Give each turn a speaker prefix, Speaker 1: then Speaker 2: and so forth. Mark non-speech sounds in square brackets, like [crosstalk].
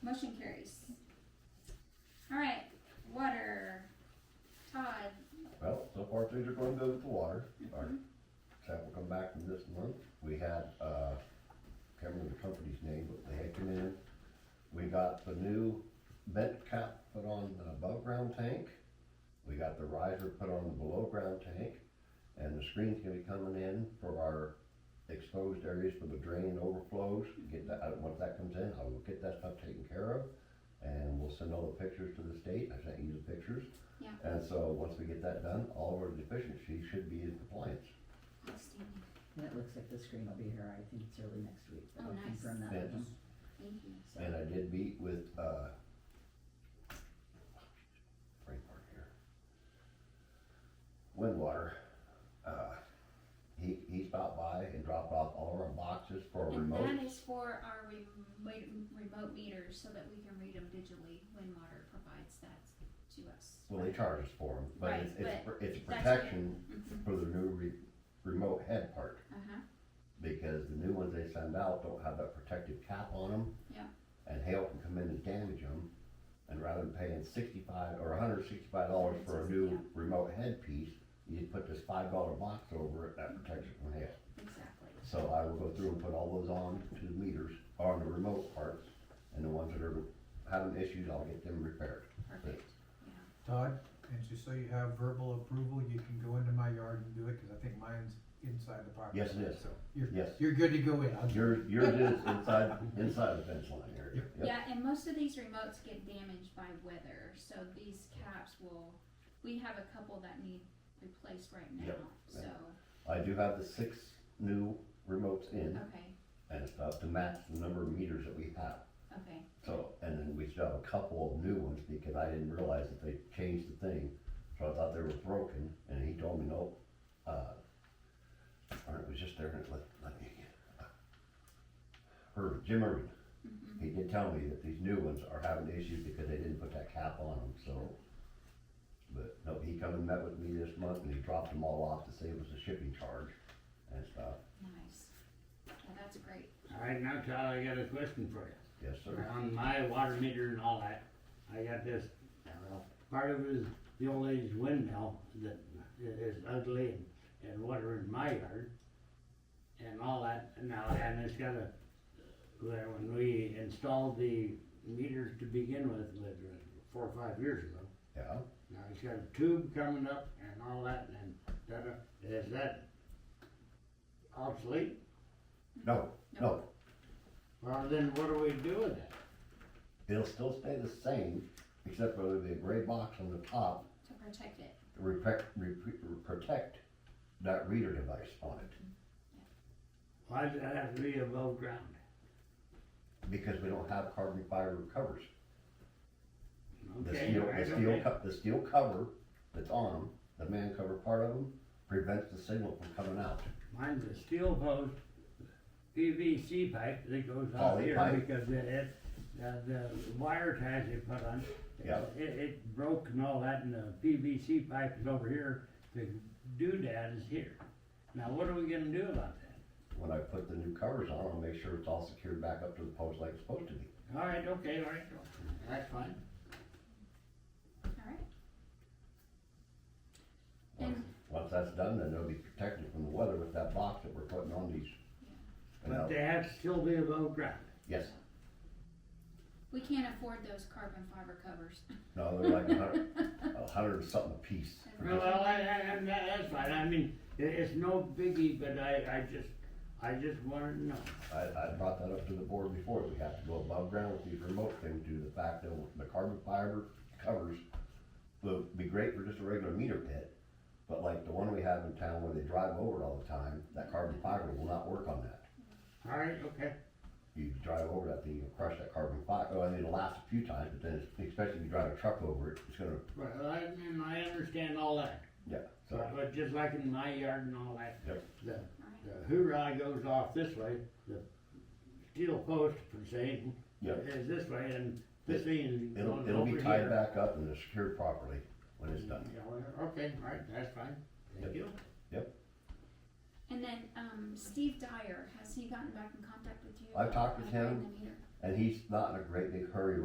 Speaker 1: Motion carries. Alright, water. Todd,
Speaker 2: Well, so far things are going good with the water. Our staff will come back from this month. We had, uh, can't remember the company's name, but they had come in. We got the new vent cap put on the above ground tank. We got the riser put on the below ground tank. And the screen's gonna be coming in for our exposed areas for the drain overflows. Get that, uh, once that comes in, I will get that stuff taken care of. And we'll send all the pictures to the state. I sent you the pictures.
Speaker 1: yeah,
Speaker 2: And so, once we get that done, all of our deficiencies should be in compliance.
Speaker 1: outstanding,
Speaker 3: And it looks like the screen will be here, I think it's early next week, but
Speaker 1: Oh,
Speaker 3: I'll
Speaker 1: nice.
Speaker 3: confirm that with them.
Speaker 1: thank you.
Speaker 2: And I did meet with, uh, right part here. Windwater, uh, he, he stopped by and dropped off all of our boxes for a
Speaker 1: And
Speaker 2: remote.
Speaker 1: that is for our remote, remote meters, so that we can read them digitally when water provides that to us.
Speaker 2: Well, they charge us for them, but it's,
Speaker 1: Right,
Speaker 2: it's, pr- it's
Speaker 1: that's what-
Speaker 2: protection
Speaker 1: Mhm.
Speaker 2: for the new re- remote head part.
Speaker 1: Uh-huh,
Speaker 2: because the new ones they send out don't have that protective cap on them.
Speaker 1: Yeah.
Speaker 2: And hail can come in and damage them, and rather than paying sixty-five or hundred sixty-five dollars for a
Speaker 1: Yeah.
Speaker 2: new remote headpiece, you just put this five dollar box over it, that protects it from hail.
Speaker 1: exactly.
Speaker 2: So I will go through and put all those on to the meters, on the remote parts, and the ones that are having issues, I'll get them repaired.
Speaker 1: Perfect, yeah.
Speaker 4: Todd, and just so you have verbal approval, you can go into my yard and do it, cause I think mine's inside the property.
Speaker 2: Yes, it is.
Speaker 4: So you're,
Speaker 2: Yes,
Speaker 4: you're good to go in. I'll-
Speaker 2: yours, yours is inside, inside the fence line
Speaker 1: [laughs]
Speaker 2: area. Yep.
Speaker 1: Yeah, and most of these remotes get damaged by weather, so these caps will, we have a couple that need replaced right now,
Speaker 2: Yep,
Speaker 1: so,
Speaker 2: I do have the six new remotes in.
Speaker 1: okay,
Speaker 2: and stuff to match the number of meters that we have.
Speaker 1: okay,
Speaker 2: So, and then we still have a couple of new ones because I didn't realize that they changed the thing. So I thought they were broken and he told me no, uh, or it was just there and it let, let me. uh, Irvin, Jim Irvin,
Speaker 1: mhm,
Speaker 2: he did tell me that these new ones are having issues because they didn't put that cap on them, so. But no, he come and met with me this month and he dropped them all off to save us a shipping charge and stuff.
Speaker 1: nice. Yeah, that's great,
Speaker 5: All right, now Todd, I got a question for you.
Speaker 2: Yes, sir.
Speaker 5: On my water meter and all that, I got this, well, part of it is the old age windmill that i- is ugly and, and water in my yard. And all that, and now, and it's got a, when when we installed the meters to begin with, like, four or five years ago.
Speaker 2: Yeah.
Speaker 5: Now it's got a tube coming up and all that and that, is that obsolete?
Speaker 2: No, no,
Speaker 5: Well, then what do we do with that?
Speaker 2: It'll still stay the same, except for there'll be a gray box on the top
Speaker 1: to protect it,
Speaker 2: to reprec- repre- protect that reader device on it.
Speaker 5: Why does that have to be above ground?
Speaker 2: Because we don't have carbon fiber covers. The
Speaker 5: Okay,
Speaker 2: steel,
Speaker 5: right,
Speaker 2: the steel,
Speaker 5: okay.
Speaker 2: co- the steel cover that's on them, the man cover part of them, prevents the signal from coming out.
Speaker 5: Mine's a steel post, PVC pipe that goes out
Speaker 2: Poly
Speaker 5: here
Speaker 2: pipe.
Speaker 5: because it, it, the, the wire ties they put on.
Speaker 2: Yeah.
Speaker 5: It, it broke and all that and the PVC pipe is over here, the doodad is here. Now what are we gonna do about that?
Speaker 2: When I put the new covers on, I'll make sure it's all secured back up to the post like it's supposed to be.
Speaker 5: All right, okay, all right, that's fine.
Speaker 1: alright? And,
Speaker 2: Once that's done, then they'll be protected from the weather with that box that we're putting on these. And
Speaker 5: But
Speaker 2: I'll-
Speaker 5: they have to still be above ground.
Speaker 2: Yes,
Speaker 1: we can't afford those carbon fiber covers.
Speaker 2: no, they're like a hundred, a hundred and something a
Speaker 5: [laughs]
Speaker 2: piece.
Speaker 5: Well, I, I, I'm, that- that's fine, I mean, it, it's no biggie, but I, I just, I just wanna know.
Speaker 2: I, I brought that up to the board before, we have to go above ground with these remote things due to the fact that the carbon fiber covers will be great for just a regular meter pit, but like the one we have in town where they drive over it all the time, that carbon fiber will not work on that.
Speaker 5: All right, okay.
Speaker 2: You drive over that thing, you'll crush that carbon fiber, oh, and it'll last a few times, but then it's- especially if you drive a truck over it, it's gonna,
Speaker 5: Well, I, and I understand all that,
Speaker 2: yeah, so,
Speaker 5: but, but just like in my yard and all that.
Speaker 2: Yep.
Speaker 5: The,
Speaker 1: Alright,
Speaker 5: the hoorah goes off this way, the steel post per se
Speaker 2: yeah.
Speaker 5: is this way, and this thing is
Speaker 2: It'll,
Speaker 5: going
Speaker 2: it'll
Speaker 5: over
Speaker 2: be
Speaker 5: here.
Speaker 2: tied back up and it's secured properly when it's done.
Speaker 5: Yeah, well, okay, all right, that's fine,
Speaker 2: Yep.
Speaker 5: thank you.
Speaker 1: And then, um, Steve Dyer, has he gotten back in contact with you?
Speaker 2: I've talked with
Speaker 1: about
Speaker 2: him.
Speaker 1: buying the meter?
Speaker 2: And he's not in a great big hurry